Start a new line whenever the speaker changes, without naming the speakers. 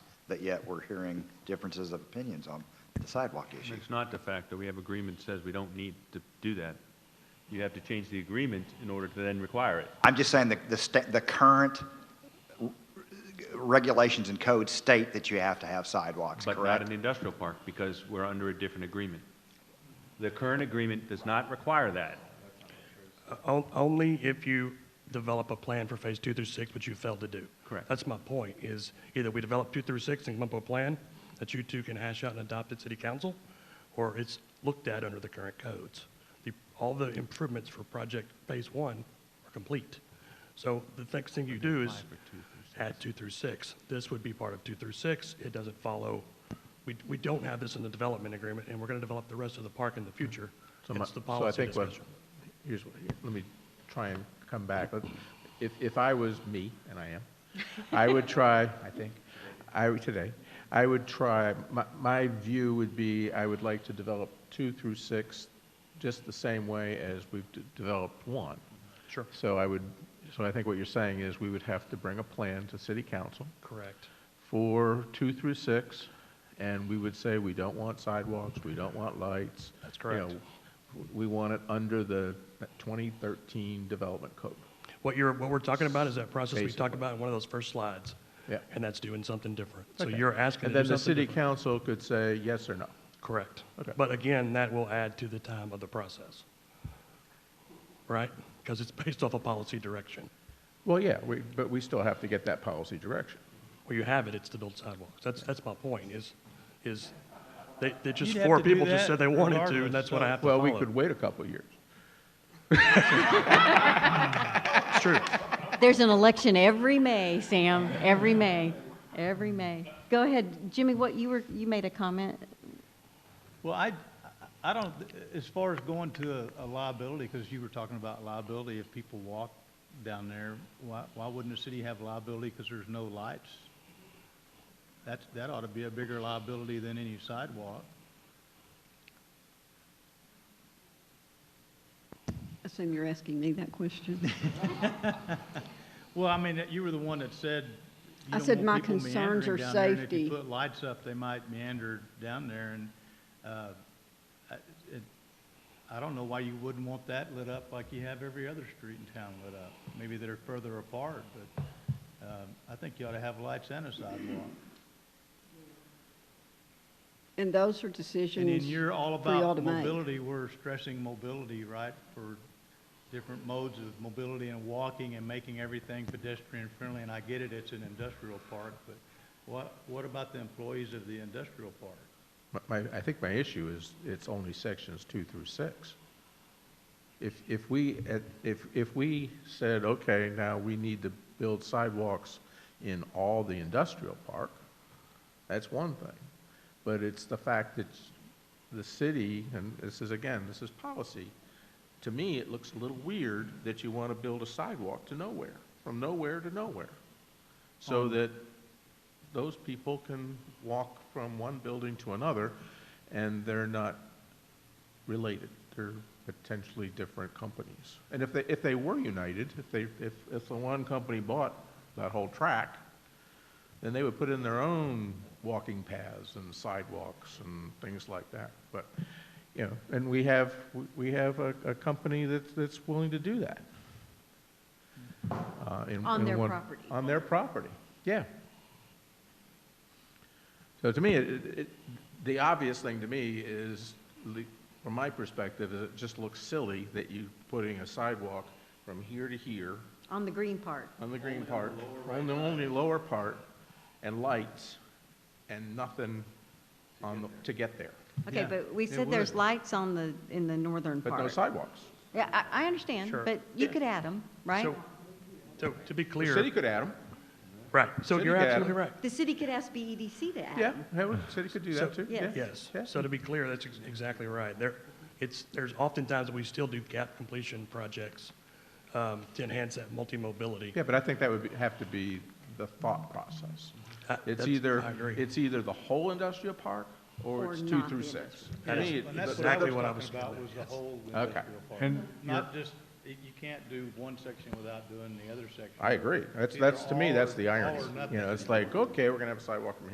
but yet we're hearing differences of opinions on the sidewalk issue.
It's not de facto. We have agreement that says we don't need to do that. You have to change the agreement in order to then require it.
I'm just saying that the, sta- the current w- regulations and codes state that you have to have sidewalks,
But not
correct?
an industrial park, because we're under a different agreement. The current agreement does not require that.
On- Only if you develop a plan for phase two through six, which you failed to do.
Correct.
That's my point, is either we develop two through six and come up with a plan that you two can hash out and adopt at city council, or it's looked at under the current codes. The, all the improvements for project phase one are complete. So the next thing you do is add two through six. This would be part of two through six. It doesn't follow, we, we don't have this in the development agreement, and we're going to develop the rest of the park in the future.
So my-
It's the
so I
policy
think what-
discussion.
Here's, what- here, let me try and come back. Let- If, if I was me, and I am, I would try, I think, I, would- today, I would try, my, my view would be, I would like to develop two through six just the same way as we've d- developed one.
Sure.
So I would, so I think what you're saying is we would have to bring a plan to city council
Correct.
for two through six, and we would say, we don't want sidewalks, we don't want lights.
That's
You
correct.
know, We want it under the 2013 development code.
What you're, what we're talking about is that process we talked
Basically.
about in one of those first slides.
Yeah.
And that's doing something different. So
Okay.
you're asking
And
to
then
do
the
something
city
different.
council could say yes or no.
Correct.
Okay.
But again, that will add to the time of the process. Right? Because it's based off a policy direction.
Well, yeah, we- but we still have to get that policy direction.
Where you have it, it's to build sidewalks. That's, that's my point is, is they, they just,
You'd have
four
to do
people just
that
said they wanted to
regardless,
and that's what
so-
I have to
Well,
follow.
we could wait a couple of years.
It's true.
There's an election every May, Sam, every May, every May. Go ahead, Jimmy, what, you were, you made a comment?
Well, I, I don't, as far as going to a- a liability, because you were talking about liability, if people walk down there, why, why wouldn't the city have liability because there's no lights? That's, that ought to be a bigger liability than any sidewalk.
Assume you're asking me that question.
Well, I mean, you were the one that said you
I
don't
said
want
my
people meandering
concerns are
down there, and If
safety.
you put lights up, they might meander down there, and, uh, I- it, I don't know why you wouldn't want that lit up like you have every other street in town lit up. Maybe they're further apart, but, um, I think you ought to have lights and a sidewalk.
And those are decisions.
And then you're all
for y'all
about
to make.
mobility, we're stressing mobility, right? For different modes of mobility and walking and making everything pedestrian friendly, and I get it, it's an industrial park, but what, what about the employees of the industrial park?
My- My, I think my issue is it's only sections two through six. If, if we, at- if, if we said, okay, now we need to build sidewalks in all the industrial park, that's one thing. But it's the fact that the city, and this is, again, this is policy, to me, it looks a little weird that you want to build a sidewalk to nowhere, from nowhere to nowhere. So that those people can walk from one building to another, and they're not related. They're potentially different companies. And if they, if they were united, if they, if, if the one company bought that whole track, then they would put in their own walking paths and sidewalks and things like that. But, you know, and we have, we have a, a company that's, that's willing to do that. Uh, in-
On
in
their
one-
property.
On their property, yeah. So to me, it, it- it, the obvious thing to me is, le- from my perspective, is it just looks silly that you putting a sidewalk from here to here
On the green part.
on the green part, on the only lower part, and lights, and nothing on the, to get there.
Okay,
Yeah,
but we
it
said there's
would.
lights on the, in the northern
But no
part.
sidewalks.
Yeah, I, I understand,
Sure.
but you could add them, right?
So, so to be
The
clear,
city could add them,
right, so
city
you're
could add
absolutely
it.
right.
The city could ask BEDC to add
yeah,
'em.
yeah, well, the city could do that too, yeah.
yes.
Yes,
Yeah.
so to be clear, that's ex- exactly right. There, it's, there's oftentimes we still do gap completion projects um, to enhance that multi-mobility.
Yeah, but I think that would be- have to be the thought process.
Uh,
It's
that's-
either,
I agree.
it's either the whole industrial park, or
Or
it's two
not
through
the
six.
That
To
is-
me,
and
it- but
that's
what I
that-
exactly what I was
talking about,
getting
was the whole
Okay.
industrial park.
And
Not just, you can't do one section without doing the other section.
I agree, that's,
Either
that's, to me,
all
that's
or-
the
all
irony,
or
you
nothing.
know, it's like, okay, we're gonna have a sidewalk from here